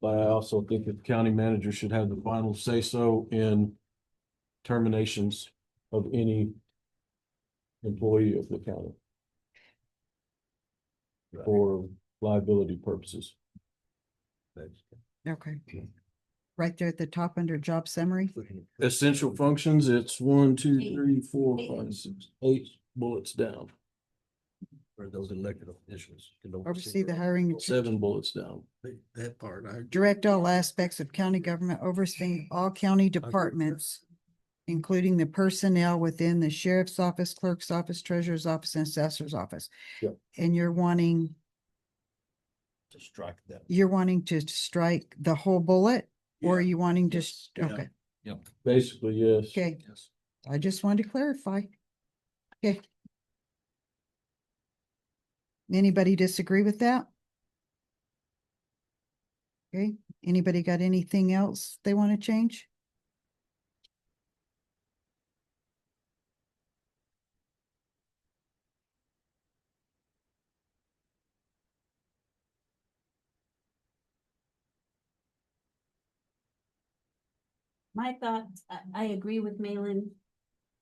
But I also think that the county manager should have the final say so in terminations of any employee of the county. For liability purposes. Okay. Okay. Right there at the top under job summary. Essential functions, it's one, two, three, four, five, six, eight bullets down, For those elected officials. can Oversee the hiring and seven bullets down. That- That part, I. direct all aspects of county government, overseeing all county departments, including the personnel within the sheriff's office, clerk's office, treasurer's office, and assessor's office. Yep. And you're wanting, To strike that. you're wanting to strike the whole bullet, or are you wanting just, Yeah. okay, Yep. Basically, yes. okay, Yes. I just wanted to clarify. Okay. Anybody disagree with that? Okay, anybody got anything else they want to change? My thoughts, I, I agree with Malin.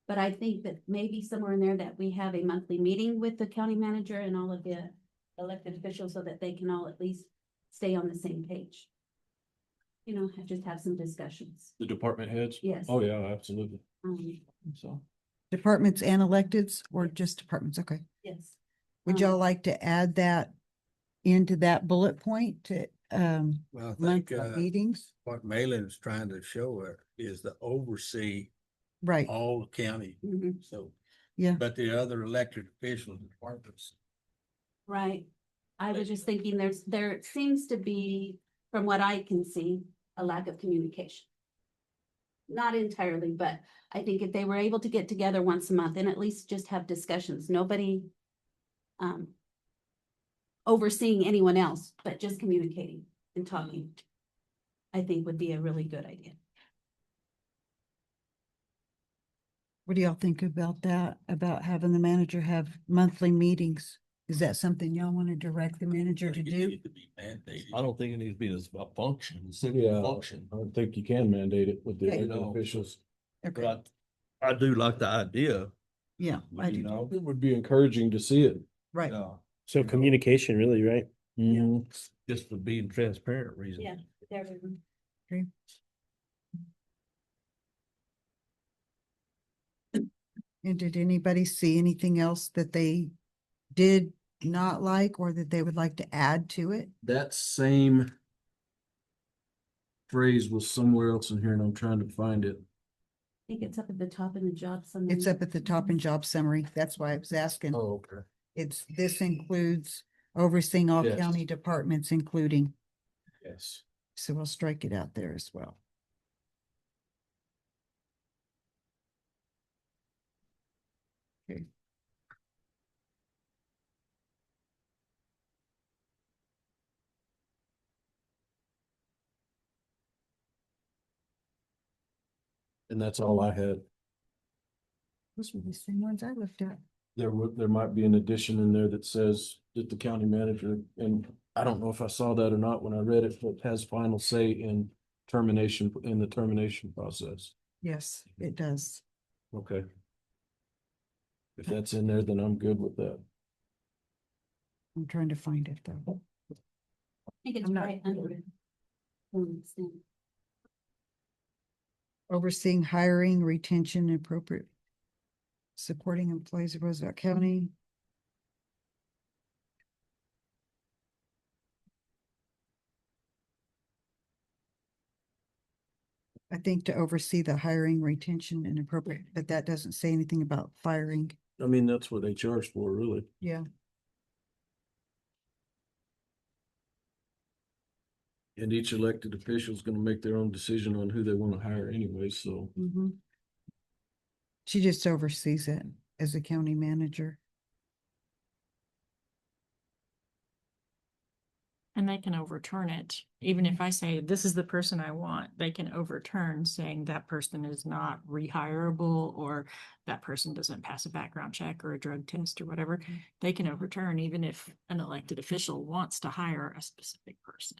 But I think that maybe somewhere in there that we have a monthly meeting with the county manager and all of the elected officials so that they can all at least stay on the same page. You know, have- just have some discussions. The department heads? Yes. Oh, yeah, absolutely. Um, So. Departments and electeds or just departments? Okay. yes. Would Um, y'all like to add that into that bullet point to um Well, I think monthly uh, meetings? what Malin's trying to show her is the oversee Right, all county, mhm, so. Yeah. But the other elected officials and departments. Right. I was just thinking there's, there seems to be, from what I can see, a lack of communication. Not entirely, but I think if they were able to get together once a month and at least just have discussions, nobody um overseeing anyone else, but just communicating and talking, I think would be a really good idea. what do y'all think about that? About having the manager have monthly meetings? Is that something y'all want to direct the manager to It do? needs to be mandated. I don't think it needs to be as a function, a Yeah. simple function, I don't think you can mandate it with the Okay. elected officials. Okay, but I, I do like the idea, yeah, I you do, know? It would be encouraging to see it. right. Yeah, So communication really, right? Mm-hmm. Just for being transparent reason. Yeah. There, And did anybody see anything else that they did not like or that they would like to add to it? That same phrase was somewhere else in here and I'm trying to find it. I think it's up at the top in the job summary. It's up at the top in job summary. That's why I was asking. Oh, okay. It's, this includes overseeing all Yes. county departments, including, Yes. so we'll strike it out there as well. Okay. And that's all I had. Those were the same ones I looked at. There would, there might be an addition in there that says that the county manager, and I don't know if I saw that or not when I read it, but has final say in termination, in the termination process. Yes, it does. Okay. If that's in there, then I'm good with that. I'm trying to find it though. I think it's I'm not- right under it. Um, so- Overseeing hiring, retention, and appropriate. Supporting employees of Roosevelt County. I think to oversee the hiring, retention, and appropriate, but that doesn't say anything about firing. I mean, that's what they charge for, really. Yeah. And each elected official is gonna make their own decision on who they wanna hire anyway, so. Mm-hmm. She just oversees it as a county manager. And they can overturn it. Even if I say, this is the person I want, they can overturn saying that person is not rehirable or that person doesn't pass a background check or a drug test or whatever. They can overturn even if an elected official wants to hire a specific person.